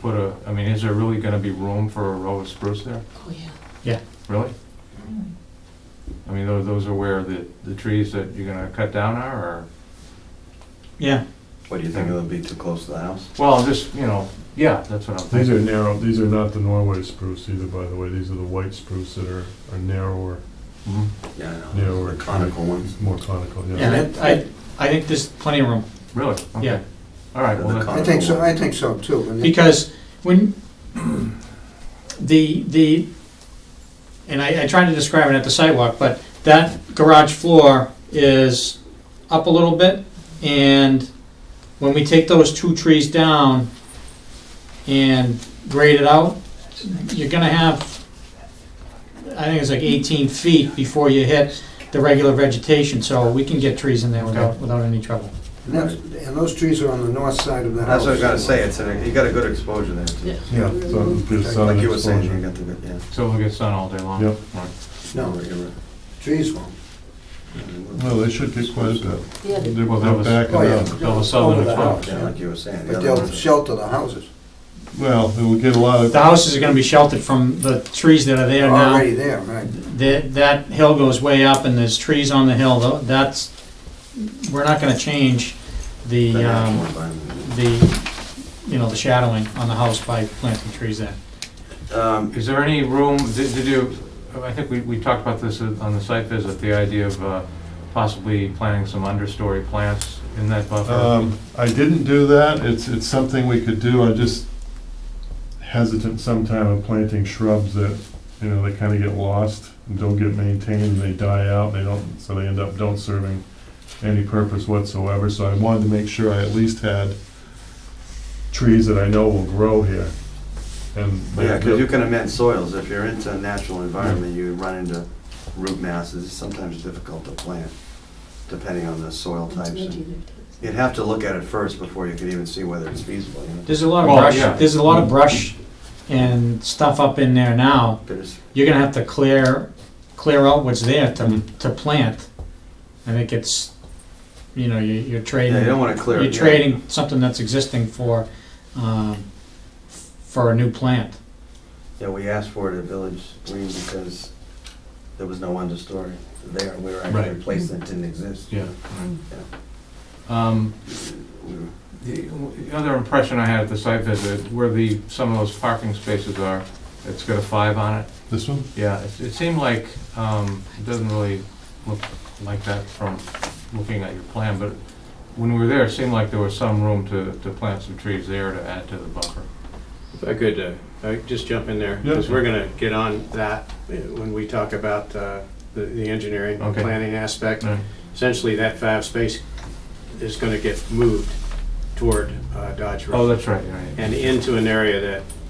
put a, I mean, is there really gonna be room for a row of spruce there? Oh, yeah. Really? I mean, tho- those are where the, the trees that you're gonna cut down are, or? Yeah, What, do you think it'll be too close to the house? Well, just, you know, yeah, that's what I'm These thinking. are narrow, these are not the Norway spruce either, by the way, these are the white spruce that are, are narrower, Mhm. Yeah, I know. narrower. The conical ones. More conical, yeah. yeah, I, I- I think there's plenty of room, Really? Okay. yeah. All right, well, The that- con- I think so, I think so too. and it- Because when, the, the, and I, I tried to describe it at the sidewalk, but that garage floor is up a little bit, and when we take those two trees down and grade it out, you're gonna have, I think it's like eighteen feet before you hit the regular vegetation, so we can get trees in there without, without any trouble. And that's, and those trees are on the north side of the That's house. what I was gonna say, it's, an- you got a good exposure there too. Yeah, so there's sun Like you were saying, you exposure. got the, good- yeah. so we'll get sun all day long? Yep. All right. No, You're right. trees won't. Well, they should get quite a bit. Yeah, the- They're Well, that was- back Oh, yeah. and up. They'll have southern Over the exposure. house, Yeah, yeah. like you were saying. the But other they'll ones are- shelter the houses. Well, it will get a lot of, The houses are gonna be sheltered from the trees that are there They're now. already there, right? That, that hill goes way up and there's trees on the hill, Tho- that's, we're not gonna change the the, natural um, environment. the, you know, the shadowing on the house by planting trees there. Um, Is there any room, did did you, I think we, we talked about this on the site visit, the idea of uh, possibly planting some understory plants in that buffer? um, I didn't do that, it's, it's something we could do, I'm just hesitant sometime of planting shrubs that, you know, they kinda get lost and don't get maintained, and they die out, they don't, so they end up don't serving any purpose whatsoever, so I wanted to make sure I at least had trees that I know will grow here, and. yeah, cause you can amend soils, if you're into a natural environment, you run into root masses, it's sometimes difficult to plant, depending on the soil types. and- You'd have to look at it first before you could even see whether it's feasible, you know? There's a lot of Well, yeah. brush, there's a lot of brush and stuff up in there now. There's- You're gonna have to clear, clear out what's there to, Mm-hmm. to plant. I think it's, you know, you- you're trading. Yeah, you don't wanna clear. You're yeah. trading something that's existing for, um, for a new plant. Yeah, we asked for it at Village Green because there was no understory there. We were Right. actually replacing, it didn't exist. Yeah. Um, We were- The the other impression I had at the site visit, where the, some of those parking spaces are, it's got a five on it. This one? Yeah, it it seemed like, um, it doesn't really look like that from looking at your plan, but when we were there, it seemed like there was some room to, to plant some trees there to add to the buffer. If I could, uh, I could just jump in there, Yeah. because we're gonna get on that uh, when we talk about uh, the the engineering and Okay. planning aspect. Right. Essentially, that five space is gonna get moved toward uh, Dodge Oh, Road that's right, right. and into an area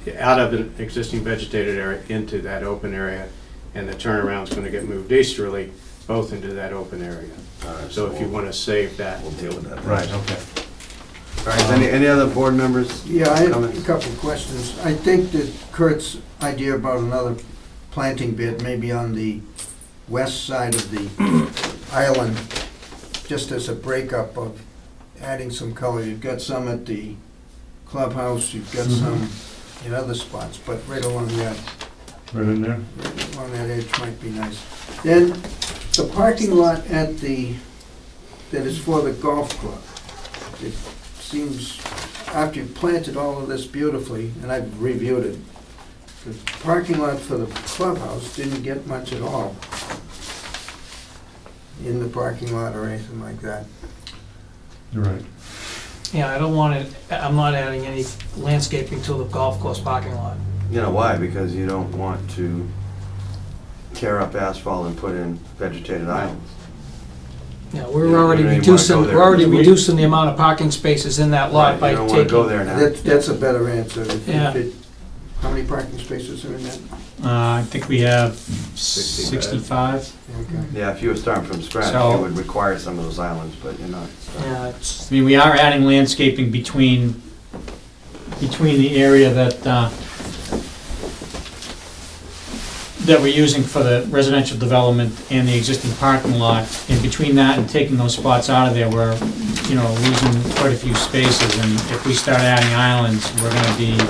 that, out of an existing vegetated area into that open area, and the turnaround's gonna get moved easterly, both into that open area. all right, So if you we'll- wanna save that, We'll deal with that. then. Right, okay. All right, is any, any other board members? Yeah, I have a Comments? couple of questions. I think that Kurt's idea about another planting bed, maybe on the west side of the island, just as a breakup of adding some color. You've got some at the clubhouse, you've got Mm-hmm. some in other spots, but right along that, Right in there? right along that edge might be nice. Then, the parking lot at the, that is for the golf club, it seems, after you've planted all of this beautifully, and I've reviewed it, the parking lot for the clubhouse didn't get much at all in the parking lot or anything like that. You're right. Yeah, I don't want it, I'm not adding any landscaping to the golf course parking lot. You know why? Because you don't want to tear up asphalt and put in vegetated islands. Yeah, You- we're you already don't even wanna reducing, go there we're already because we- reducing the amount of parking spaces in that lot Right, by You don't wanna go taking. there now. That, that's a better answer. If- if Yeah. it- How many parking spaces are in that? Uh, I think we have 65. sixty-five. Okay. Yeah, if you were starting from scratch, So- it would require some of those islands, but you're not. starting. Yeah, it's, I mean, we are adding landscaping between, between the area that, uh, that we're using for the residential development and the existing parking lot. And between that and taking those spots out of there, we're, you know, losing quite a few spaces. And if we start adding islands, we're gonna be